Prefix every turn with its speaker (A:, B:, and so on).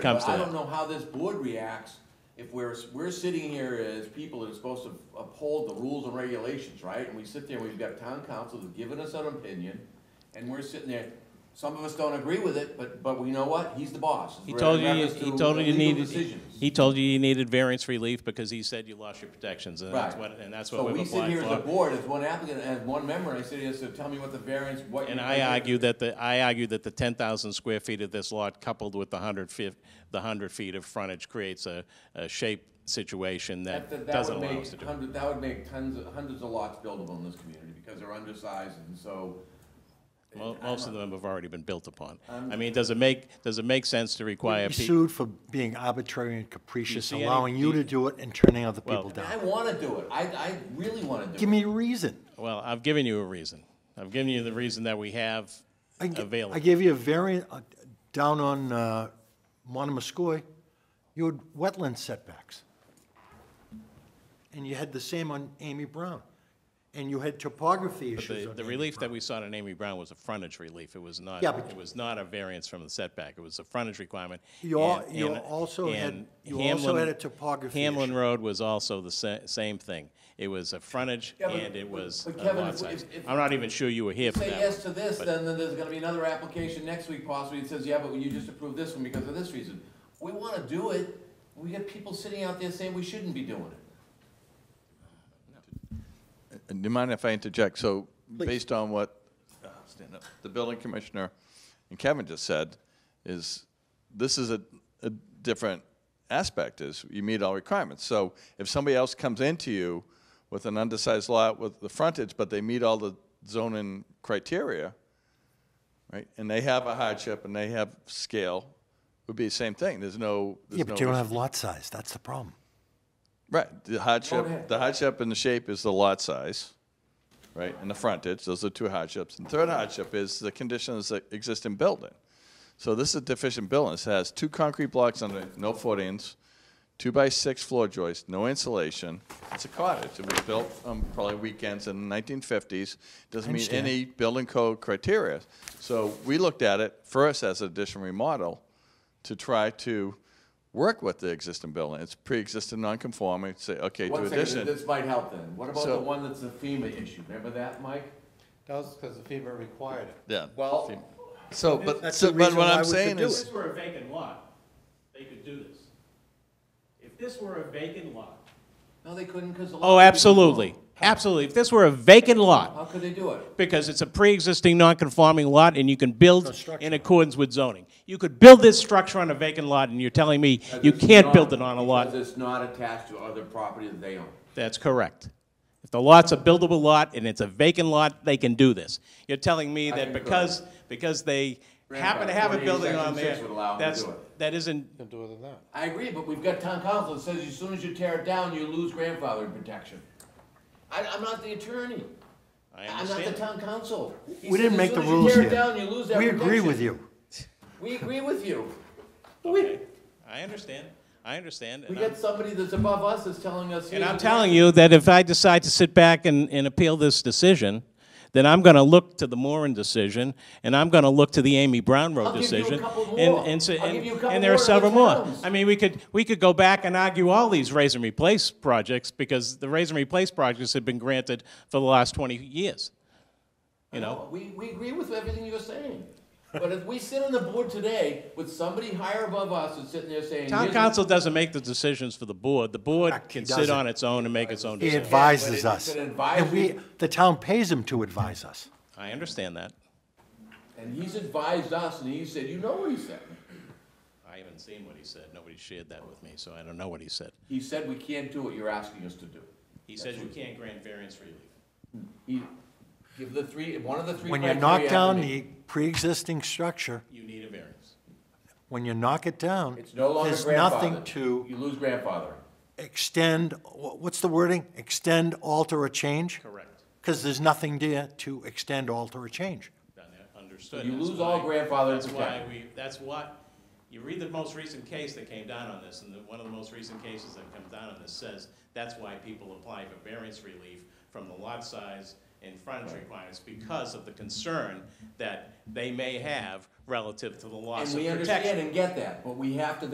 A: comes
B: But
A: to
B: I
A: that.
B: don't know how this board reacts if we're, we're sitting here as people that are supposed to uphold the rules and regulations, right? And we sit there, we've got town council who's given us an opinion, and we're sitting there, some of us don't agree with it, but, but we know what? He's the boss.
A: He
B: We're
A: told you,
B: reference
A: he
B: to
A: told you you
B: legal
A: needed,
B: decisions.
A: he told you you needed variance relief because he said you lost your protections, and that's
B: Right.
A: what, and that's
B: So
A: what
B: we
A: we've
B: sit
A: applied
B: here as a
A: for.
B: board, as one applicant, as one member, and I sit here and say, tell me what the variance, what. you
A: And
B: think
A: I
B: it-
A: argue that the, I argue that the ten thousand square feet of this lot coupled with the hundred fif, the hundred feet of frontage creates a, a shape situation that
B: that
A: doesn't
B: would
A: allow
B: make
A: us to do. it.
B: hundred- That would make tons, of- hundreds of lots buildable in this community, because they're undersized, and so.
A: Mo- Most of them have already been built upon.
B: I'm-
A: I mean, does it make, does it make sense to require
C: Be
A: people?
C: sued for being arbitrary and capricious,
A: see any-
C: allowing you
A: do you-
C: to do it and turning other
A: Well-
C: people
B: And I
C: down.
B: wanna do it, I, I really wanna do it.
C: Give me a reason.
A: Well, I've given you a reason. I've given you the reason that we have
C: I g-
A: available.
C: I gave you a variant, uh, down on uh, Monomoskoy, you had wetland setbacks. And you had the same on Amy Brown. And you had topography
A: But
C: issues
A: the,
C: on
A: the
C: Amy
A: relief that
C: Brown.
A: we sought on Amy Brown was a frontage relief. It was not,
C: Yeah, but-
A: it was not a variance from the setback. It was a frontage requirement.
C: You al-
A: And-
C: you
A: and-
C: also had-
A: and
C: you also
A: Hamlin-
C: had a topography
A: Hamlin
C: issue.
A: Road was also the sa- same thing. It was a frontage
B: Yeah, but-
A: and it was
B: but
A: a
B: Kevin,
A: lot
B: if we-
A: size.
B: if- if-
A: I'm not even sure you were here for
B: Say
A: that.
B: yes
A: one.
B: to this,
A: But-
B: then, then there's gonna be another application next week possibly, that says, yeah, but you just approved this one because of this reason. We wanna do it, we got people sitting out there saying we shouldn't be doing it.
D: Do you mind if I interject? So,
C: Please.
D: based on what uh, stand up, the building commissioner and Kevin just said, is this is a, a different aspect, is you meet all requirements. So if somebody else comes into you with an undersized lot with the frontage, but they meet all the zoning criteria, right, and they have a hardship and they have scale, it would be the same thing. There's no, there's
C: Yeah, but
D: no
C: you don't
D: res-
C: have lot size, that's the problem.
D: Right, the
B: Go ahead.
D: hardship, the hardship and the shape is the lot size, right, and the frontage, those are two hardships. And third hardship is the conditions that exist in building. So this is a deficient building, it has two concrete blocks under it, no footings, two by six floor joists, no insulation. It's a cottage, it was built on probably weekends in the nineteen fifties, doesn't meet
C: understand.
D: any building code criteria. So we looked at it first as an addition remodel to try to work with the existing building. It's pre-existing non-conforming, say, okay, do
B: One second,
D: addition.
B: this might help then. What about
D: So-
B: the one that's the FEMA issue, remember that, Mike?
E: That was because the FEMA required it.
D: Yeah.
B: Well-
D: FEMA. So, but,
C: That's
D: so,
C: the
D: but
C: reason
D: what
C: why
D: I'm
C: we could
D: saying
C: do
D: is,
F: If this were a vacant lot, they could do this. If this were a vacant lot,
B: No, they couldn't, cause a lot. of people-
A: Oh, absolutely, absolutely. If this were a vacant
B: How
A: lot,
B: could they do it?
A: because it's a pre-existing non-conforming lot and you can build
C: structure.
A: in accordance with zoning. You could build this structure on a vacant lot and you're telling me you
B: Because it's
A: can't
B: not-
A: build it on a lot
B: Because it's not attached to other property that they own.
A: That's correct. If the lot's a buildable lot and it's a vacant lot, they can do this. You're telling me
B: I
A: that
B: concur.
A: because, because they happen to
B: Grandfather,
A: have a
B: 48
A: building on
B: Section
A: there,
B: six would allow them to
A: that's,
B: do it.
A: that isn't,
E: Can do it than that.
B: I agree, but we've got town council that says as soon as you tear it down, you lose grandfathering protection. I, I'm not the attorney.
A: I
B: I'm not the
A: understand.
B: town council. He
C: We
B: said
C: didn't
B: as
C: make
B: soon
C: the
B: as you
C: rules
B: tear it
C: here.
B: down, you lose that
C: We agree with
B: protection.
C: you.
B: We agree with you.
A: Okay. I understand, I understand.
B: We
A: and I'm-
B: got somebody that's above us that's telling us.
A: And
B: here's
A: I'm
B: the
A: telling you that if I decide to sit back and, and appeal this decision, then I'm gonna look to the Moran decision, and I'm gonna look to the Amy Brown Road
B: I'll give you a
A: decision.
B: couple
A: and-
B: more.
A: and so-
B: I'll
A: and-
B: give you a couple
A: And there are
B: more
A: several more.
B: towns.
A: I mean, we could, we could go back and argue all these raise and replace projects, because the raise and replace projects have been granted for the last twenty years. You know,
B: We, we agree with everything you're saying. But if we sit on the board today with somebody higher above us that's sitting there saying.
A: town
B: "Here's-
A: council doesn't make the decisions for the board. The board
C: Correct, he
A: can sit
C: doesn't.
A: on its own and make its own
C: He
A: decisions.
C: advises
B: it's
C: us.
B: an
C: And we,
B: advisory-
C: the town pays him to advise us.
A: I understand that.
B: And he's advised us and he said, you know what he said.
A: I haven't seen what he said. Nobody shared that with me, so I don't know what he said.
B: He said, we can't do what you're asking us to do.
A: He says you can't grant variance relief.
B: He, give the three, one of the three.
C: When you knock
B: criteria
C: down
B: after me.
C: the pre-existing structure,
A: You need a variance.
C: when you knock it down,
B: It's no longer
C: there's nothing
B: grandfathered.
C: to
B: You lose grandfather.
C: extend, wha- what's the wording? Extend, alter, or change?
A: Correct.
C: Because there's nothing there to extend, alter, or change.
A: Done that. Understood.
B: You
A: That's
B: lose all
A: why-
B: grandfathering
A: That's why
B: protection.
A: we, that's what, you read the most recent case that came down on this, and the, one of the most recent cases that comes down on this says, that's why people apply for variance relief from the lot size and frontage requirements, because of the concern that they may have relative to the
B: And
A: loss of
B: we
A: protection.
B: understand and get that, but we have to